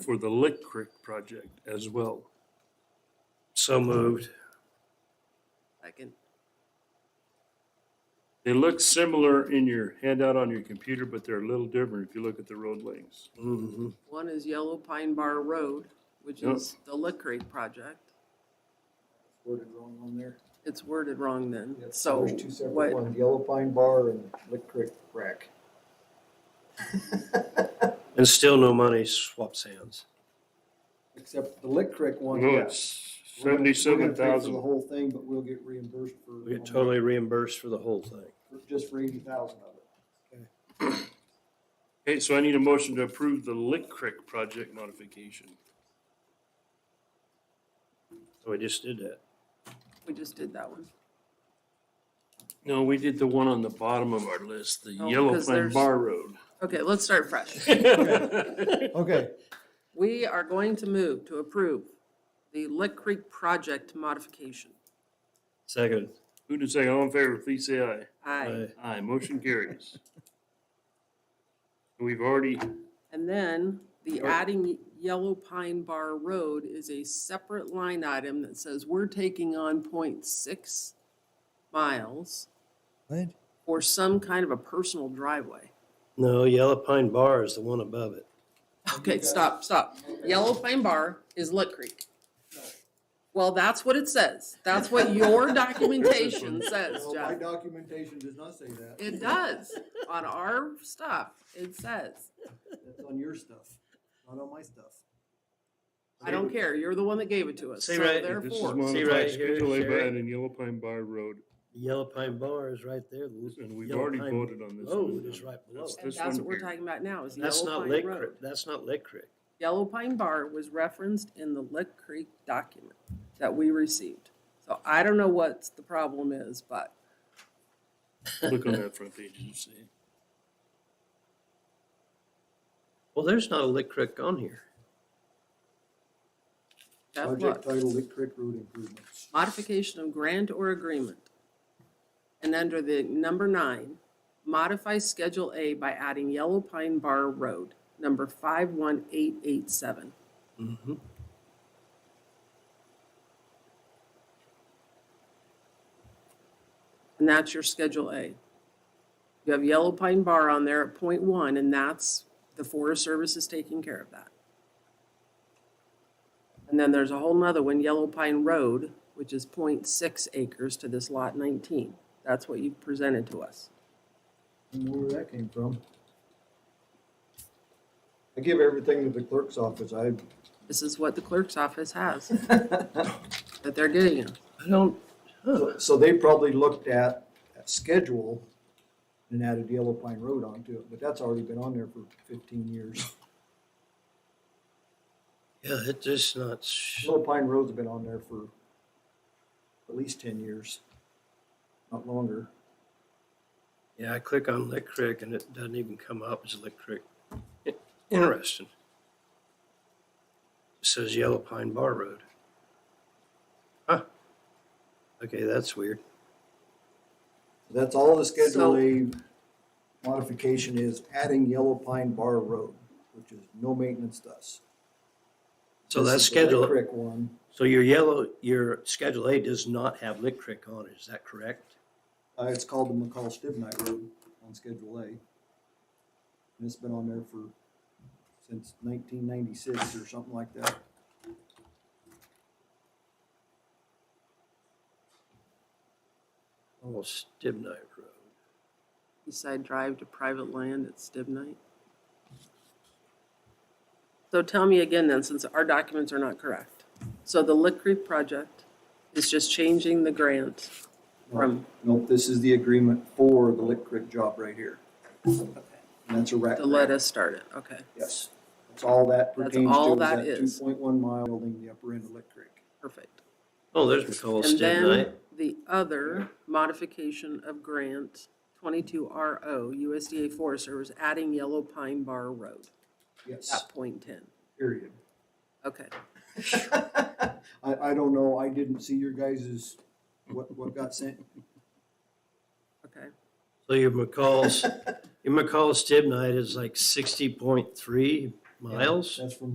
for the Lick Creek project as well. So moved. Second. They look similar in your handout on your computer, but they're a little different if you look at the road lanes. Mm-hmm. Mhm. One is Yellow Pine Bar Road, which Yep. is the Lick Creek project. Worded wrong on there. It's worded wrong then, Yep, so There's two separate what, ones, Yellow Pine Bar and Lick Creek Rack. And still no money swaps hands. Except the Lick Creek one, No, yes. it's seventy-seven The thousand. whole thing, but we'll get reimbursed for. We get totally reimbursed for the whole thing. Just for eighty thousand of it. Okay, so I need a motion to approve the Lick Creek project modification. So we just did that. we just did that one. No, we did the one on the bottom of our list, the Oh, Yellow because Pine there's- Bar Road. Okay, let's start fresh. Okay, We are going to move to approve the Lick Creek project modification. Second, Who say all in favor, please say aye. Aye. I- Aye, motion carries. We've already, And then the Or- adding Yellow Pine Bar Road is a separate line item that says we're taking on 0.6 miles What? for some kind of a personal driveway. no, Yellow Pine Bar is the one above it. Okay, stop, stop. Yellow Pine Bar is Lick Creek. Well, that's what it says. That's what your documentation says, Well, Oh my Jeff. documentation does not say that. It does. On our stuff, it says. That's on your stuff, not on my stuff. I don't care. You're the one that gave it to us. Say So right- this is therefore, See modified right here, Schedule A by Sherry? adding Yellow Pine Bar Road, The Yellow Pine Bar is right there. The and we've Yellow already Pine voted on this. Road one. is right below. That's it. and this that's one what we're here. talking about now is That's Yellow not Pine Lick Road. Creek. That's not Lick Creek. Yellow Pine Bar was referenced in the Lick Creek document that we received. So I don't know what the problem is, but Look on that front page and see. Well, there's not a Lick Creek on here. Jeff, Project look. title Lick Creek Road Improvements. modification of grant or agreement. And under the number nine, modify Schedule A by adding Yellow Pine Bar Road, number 51887. Mm-hmm. And that's your Schedule A. You have Yellow Pine Bar on there at point one, and that's, the Forest Service is taking care of that. And then there's a whole nother one, Yellow Pine Road, which is 0.6 acres to this lot nineteen. That's what you presented to us. Don't know where that came from. I give everything to the clerk's office, I. This is what the clerk's office has that they're getting us. I don't, So- So they probably looked at, at schedule and added Yellow Pine Road onto it, but that's already been on there for fifteen years. yeah, it's just not, sh- Yellow Pine Road's been on there for at least ten years, not longer. yeah, I click on Lick Creek and it doesn't even come up as Lick Creek. I- Interesting. It says Yellow Pine Bar Road. Huh. Okay, that's weird. That's all the Schedule So- A modification is adding Yellow Pine Bar Road, which is no maintenance to us. So This that's is the Red schedule. Creek one. So your yellow, your Schedule A does not have Lick Creek on it, is that correct? Uh, it's called the McCall Stibnite Road on Schedule A. And it's been on there for, since nineteen ninety-six or something like that. Oh, Stibnite Road. Eastside Drive to private land at Stibnite. So tell me again then, since our documents are not correct. So the Lick Creek project is just changing the grant from, Nope, this is the agreement for the Lick Creek job right here. And that's a rat. to let us start it, okay. Yes, that's all that That's pertains all to, that is that two is. point one mile building the upper end of Lick Creek. Perfect. Oh, there's McCall And Stibnite. then the other modification of grant, twenty-two RO, USDA Forest Service, adding Yellow Pine Bar Road Yes, at point ten. period. Okay. I, I don't know, I didn't see your guys's, what, what got sent. Okay, So your McCall's, your McCall Stibnite is like sixty point three miles? That's from